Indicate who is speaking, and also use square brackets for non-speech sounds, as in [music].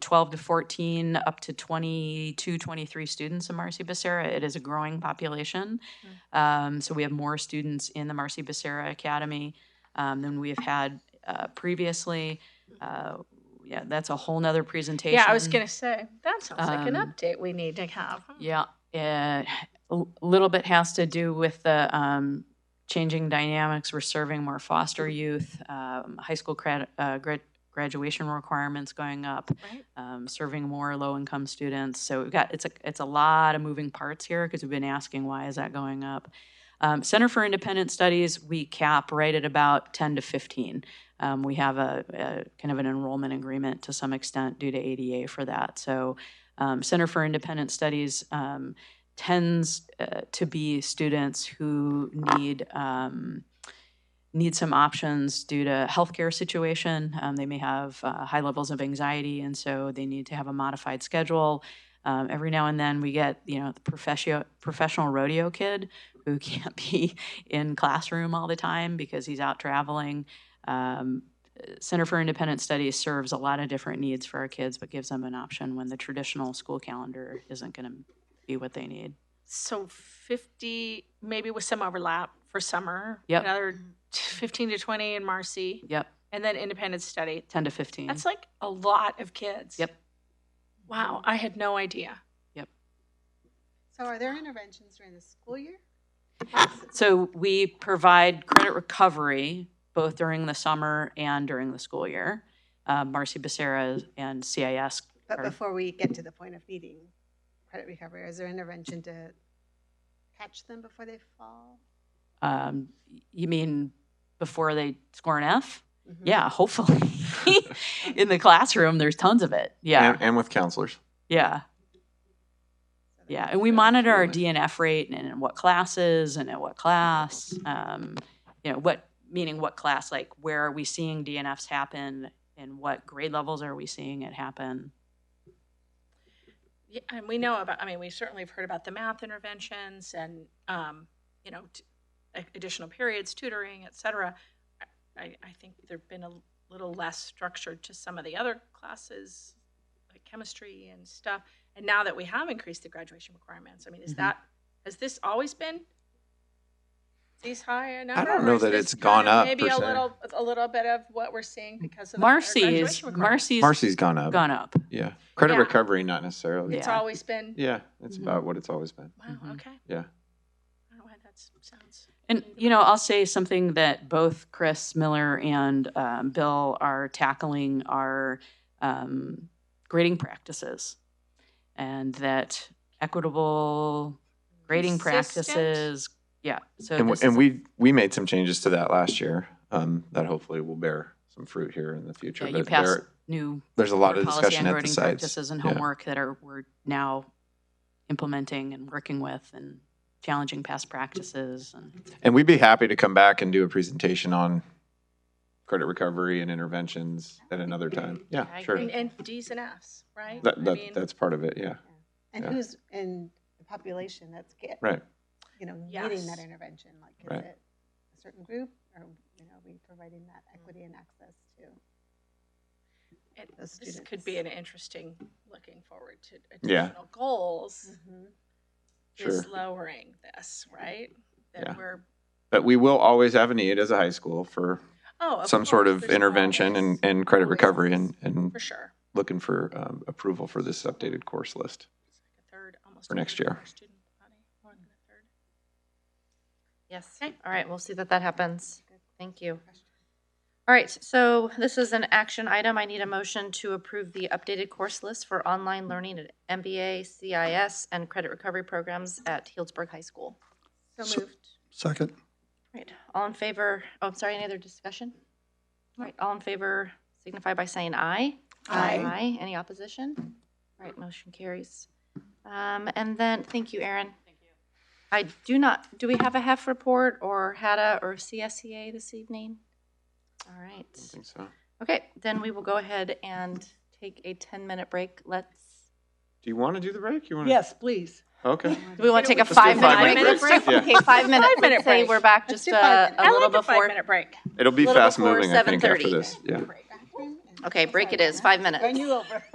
Speaker 1: 12 to 14, up to 22, 23 students in Marcy-Becerra. It is a growing population.
Speaker 2: Hmm.
Speaker 1: Um, So we have more students in the Marcy-Becerra Academy um, than we have had uh, previously. Uh, Yeah, that's a whole nother presentation.
Speaker 2: Yeah, I was gonna say, that sounds like an
Speaker 1: Um,
Speaker 2: update we need to have.
Speaker 1: Yeah, it, a little bit has to do with the um, changing dynamics. We're serving more foster youth, um, high school grad, uh, grad, graduation requirements going up,
Speaker 2: Right.
Speaker 1: um, serving more low-income students. So we've got it's a it's a lot of moving parts here because we've been asking why is that going up. Um, Center for Independent Studies we cap right at about ten to fifteen. Um, we have a, a kind of an enrollment agreement to some extent due to ADA for that. So um, Center for Independent Studies um, tends uh, to be students who need. Um, need some options due to healthcare situation. Um, they may have uh, high levels of anxiety, and so they need to have a modified schedule. Um, every now and then, we get you know the professio- professional rodeo kid who [laughs] can't be in classroom all the time because he's out traveling. Um, Center for Independent Studies serves a lot of different needs for our kids, but gives them an option when the traditional school calendar isn't going to be what they need.
Speaker 2: So fifty, maybe with some overlap for summer.
Speaker 1: Yep.
Speaker 2: Another fifteen to twenty in Marcy,
Speaker 1: Yep,
Speaker 2: and then independent study.
Speaker 1: ten to fifteen.
Speaker 2: That's like a lot of kids.
Speaker 1: Mm. Yep.
Speaker 2: Wow, I had no idea.
Speaker 3: So are there interventions during the school year?
Speaker 1: So we provide credit recovery both during the summer and during the school year. Uh, Marcy Becerra and CIS.
Speaker 3: But
Speaker 1: are-
Speaker 3: before we get to the point of needing credit recovery, is there intervention to catch them before they fall?
Speaker 1: Um, you mean before they score an F?
Speaker 3: Mhm.
Speaker 1: Yeah, hopefully. [laughs] In the classroom, there's tons of it. Yeah,
Speaker 4: And, and with counselors.
Speaker 1: yeah,
Speaker 3: So that-
Speaker 1: yeah. And we monitor our DNF rate and in what classes and at what class. Um, you know, what, meaning what class, like where are we seeing DNFs happen and what grade levels are we seeing it happen?
Speaker 2: Yeah, and we know about, I mean, we certainly have heard about the math interventions and, um, you know, t- a- additional periods, tutoring, et cetera. I, I think there've been a little less structured to some of the other classes, like chemistry and stuff. And now that we have increased the graduation requirements, I mean, is
Speaker 4: Mm-hmm.
Speaker 1: Mhm.
Speaker 2: that, has this always been these high a number?
Speaker 4: don't
Speaker 2: or
Speaker 4: know
Speaker 2: is
Speaker 4: that
Speaker 2: this
Speaker 4: it's
Speaker 2: kind
Speaker 4: gone
Speaker 2: of
Speaker 4: up,
Speaker 2: Maybe
Speaker 4: per
Speaker 2: a
Speaker 4: se.
Speaker 2: little, a little bit of what we're seeing because of the higher
Speaker 1: Marcy's,
Speaker 2: graduation requirements.
Speaker 1: Marcy's
Speaker 4: Marcy's gone up.
Speaker 1: gone up.
Speaker 4: Yeah. Credit
Speaker 2: Yeah.
Speaker 4: recovery, not necessarily.
Speaker 2: It's
Speaker 1: Yeah.
Speaker 2: always been,
Speaker 4: Yeah. It's
Speaker 1: Mhm.
Speaker 4: about what it's always been.
Speaker 2: wow,
Speaker 1: Mhm.
Speaker 2: okay.
Speaker 4: Mm-hmm. Yeah.
Speaker 2: I don't know why that sounds.
Speaker 1: And, you know, I'll say something that both Chris Miller and um, Bill are tackling are um, grading practices and that equitable grading
Speaker 2: Consistent?
Speaker 1: practices. Yeah. So,
Speaker 4: And,
Speaker 1: this
Speaker 4: w- and
Speaker 1: is-
Speaker 4: we we made some changes to that last year um, that hopefully will bear some fruit here in the future.
Speaker 1: yeah, you
Speaker 4: But
Speaker 1: passed
Speaker 4: there-
Speaker 1: new
Speaker 4: there's a lot of
Speaker 1: policy
Speaker 4: discussion
Speaker 1: on
Speaker 4: at the
Speaker 1: grading
Speaker 4: sites.
Speaker 1: practices and
Speaker 4: Yeah.
Speaker 1: homework that are we're now implementing and working with and challenging past practices. And
Speaker 4: And we'd be happy to come back and do a presentation on credit recovery and interventions at another time. Yeah,
Speaker 1: I
Speaker 4: sure.
Speaker 2: And, and D's and F's, right? I
Speaker 4: That, that,
Speaker 2: mean,
Speaker 4: that's part of it. Yeah.
Speaker 3: And
Speaker 4: Yeah.
Speaker 3: who's in the population that's get,
Speaker 4: Right.
Speaker 3: you know, needing
Speaker 2: Yes.
Speaker 3: that intervention? Like, is
Speaker 4: Right.
Speaker 3: it a certain group or, you know, are we providing that equity and access to?
Speaker 2: it-
Speaker 3: those
Speaker 2: This
Speaker 3: students.
Speaker 2: could be an interesting, looking forward to
Speaker 4: Yeah.
Speaker 2: additional goals,
Speaker 3: Mhm.
Speaker 2: is
Speaker 4: Sure.
Speaker 2: lowering this, right?
Speaker 4: Yeah.
Speaker 2: That we're,
Speaker 4: But we will always have a need as a high school for
Speaker 2: oh. of
Speaker 4: some sort
Speaker 2: course,
Speaker 4: of
Speaker 2: there's
Speaker 4: intervention and,
Speaker 2: always-
Speaker 4: and credit
Speaker 2: always,
Speaker 4: recovery and, and
Speaker 2: For sure.
Speaker 4: looking for um, approval for this updated course list.
Speaker 2: It's like a third, almost.
Speaker 4: For
Speaker 2: a
Speaker 4: next
Speaker 2: third of
Speaker 4: year.
Speaker 2: our student body, more than a third.
Speaker 5: Yes.
Speaker 2: Okay.
Speaker 5: All right, we'll see that that happens.
Speaker 3: Good
Speaker 5: Thank you.
Speaker 3: question.
Speaker 5: All right, so this is an action item. I need a motion to approve the updated course list for online learning at MBA, CIS, and credit recovery programs at Healdsburg High School.
Speaker 3: So moved.
Speaker 6: Second.
Speaker 5: All Right, all in favor, oh, I'm sorry, any other discussion? All right, all in favor signify by saying aye.
Speaker 3: Aye.
Speaker 5: Aye, any opposition? All right, motion carries. Um, and then, thank you, Erin. Thank you. I do not, do we have a HEF report or HADA or CSEA this evening? All right,
Speaker 4: I think so.
Speaker 5: okay, then we will go ahead and take a 10-minute break. Let's,
Speaker 4: Do you want to do the break? You want
Speaker 7: Yes, please.
Speaker 4: To,
Speaker 5: [laughs]
Speaker 4: okay.
Speaker 5: do we want to take a
Speaker 4: Let's do a
Speaker 5: five-minute
Speaker 4: five-minute
Speaker 5: break?
Speaker 4: break. Yeah.
Speaker 5: Okay, five minutes.
Speaker 2: Five-minute
Speaker 5: Let's say
Speaker 2: break.
Speaker 5: We're back
Speaker 3: Let's
Speaker 5: just
Speaker 3: do
Speaker 5: uh,
Speaker 3: five-minute.
Speaker 5: a
Speaker 2: I
Speaker 5: little
Speaker 2: like a
Speaker 5: before.
Speaker 2: five-minute break.
Speaker 4: It'll be
Speaker 5: Little
Speaker 4: fast
Speaker 5: before
Speaker 4: moving, I think, after
Speaker 5: 7:30.
Speaker 4: this. Yeah.
Speaker 3: Bathroom and-
Speaker 5: Okay, break it is, five minutes.
Speaker 3: Run you over. [laughs]